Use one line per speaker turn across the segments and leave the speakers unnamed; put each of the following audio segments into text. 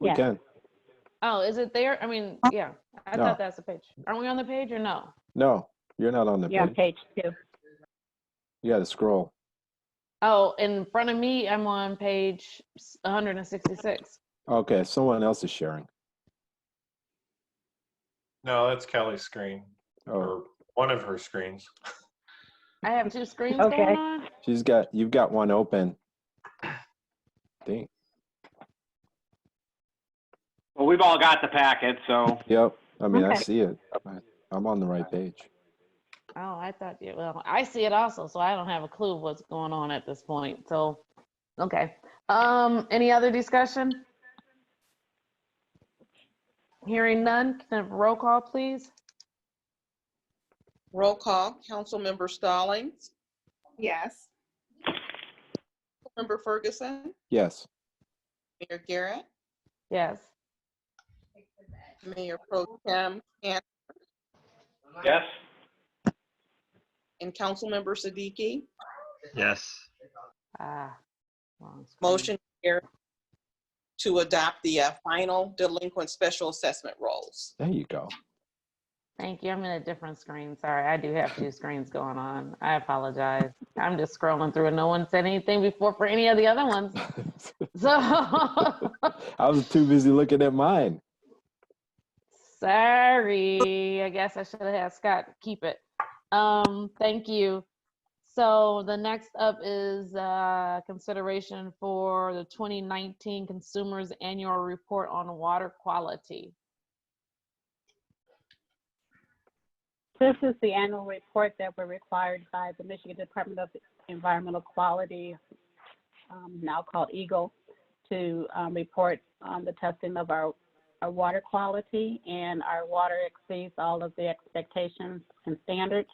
We
Yeah.
can.
Oh, is it there? I mean, yeah, I
No.
thought that's the page. Are we on the page or no?
No, you're not on the
You're on
page.
page two.
You got to scroll.
Oh, in front of me, I'm on page s- 166.
Okay, someone else is sharing.
No, that's Kelly's screen
Oh,
or one of her screens.
I have two screens
Okay.
going on.
she's got, you've got one open. Dang.
Well, we've all got the packet, so
Yep, I mean, I
Okay.
see it. I- I'm on the right page.
Oh, I thought, yeah, well, I see it also, so I don't have a clue what's going on at this point, so, okay. Um, any other discussion? Hearing none, can I have a roll call, please?
Roll call, Councilmember Stallings,
Yes.
Member Ferguson,
Yes,
Mayor Garrett,
Yes.
Mayor Pro Tem, Can-
yes.
and Councilmember Siddiqui.
yes.
Ah, wrong screen.
Motion carried to adopt the uh, final delinquent special assessment rolls.
there you go.
Thank you, I'm in a different screen, sorry, I do have two screens going on, I apologize. I'm just scrolling through and no one said anything before for any of the other ones, so.
I was too busy looking at mine.
Sorry, I guess I should have had Scott keep it. Um, thank you. So the next up is, uh, consideration for the twenty nineteen Consumers Annual Report on Water Quality.
This is the annual report that we're required by the Michigan Department of Environmental Quality, um, now called Eagle, to um, report on the testing of our, our water quality, and our water exceeds all of the expectations and standards.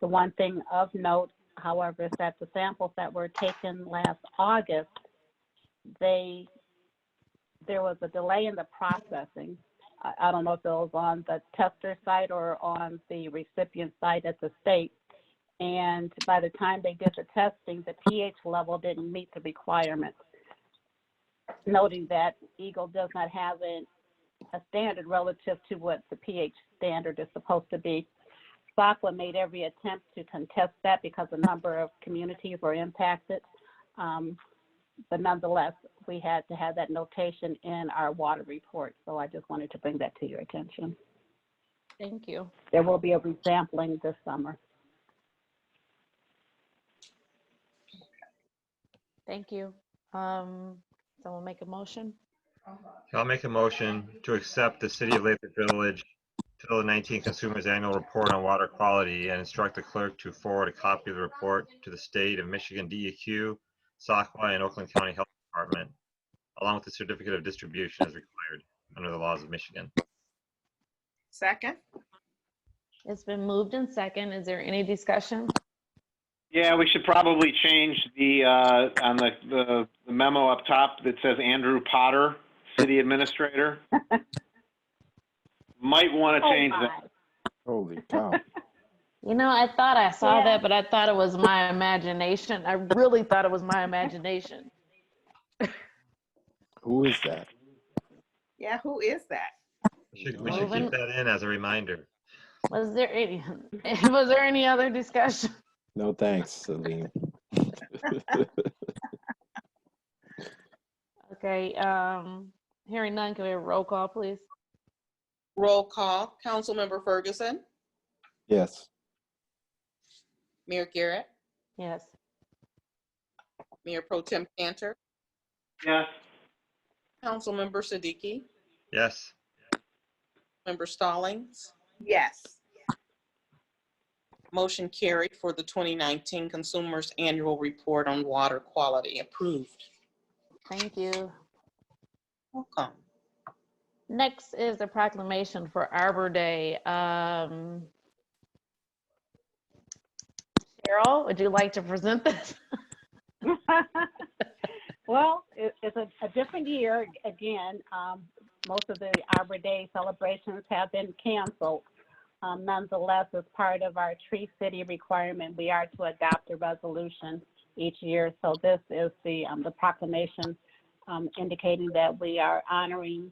The one thing of note, however, is that the samples that were taken last August, they, there was a delay in the processing, I, uh, I don't know if it was on the tester site or on the recipient site at the state. And by the time they did the testing, the pH level didn't meet the requirements. Noting that Eagle does not have an, a standard relative to what the pH standard is supposed to be. SACWA made every attempt to contest that because a number of communities were impacted. Um, but nonetheless, we had to have that notation in our water report, so I just wanted to bring that to your attention.
Thank you.
There will be a resampling this summer.
Thank you. Um, someone make a motion?
I'll make a motion to accept the City of Lathrop Village 2019 Consumers Annual Report on Water Quality and instruct the clerk to forward a copy of the report to the State of Michigan DEQ, SOCWA, and Oakland County Health Department, along with the certificate of distribution as required under the laws of Michigan.
Second?
It's been moved and second. Is there any discussion?
Yeah, we should probably change the, uh, on the, the- the memo up top that says Andrew Potter, city administrator. Might want to
Oh,
change that.
my.
Holy cow.
You know, I thought I saw
Yeah.
that, but I thought it was my imagination. I really thought it was my imagination.
Who is that?
Yeah, who is that?
We should we should
Moving-
keep that in as a reminder.
Was there any, was there any other discussion?
No thanks, Celine.
Okay, um, hearing none, can we have a roll call, please?
Roll call, Councilmember Ferguson,
Yes,
Mayor Garrett,
Yes.
Mayor Pro Tem Cantor,
Yes.
Councilmember Siddiqui,
Yes,
Member Stallings.
Yes.
Motion carried for the 2019 Consumers Annual Report on Water Quality approved.
Thank you.
Welcome.
Next is the proclamation for Arbor Day. Um, Cheryl, would you like to present this?
Well, it, it's a, a different year again. Um, most of the Arbor Day celebrations have been canceled. Um, nonetheless, as part of our Tree City requirement, we are to adopt a resolution each year. So this is the, um, the proclamation um, indicating that we are honoring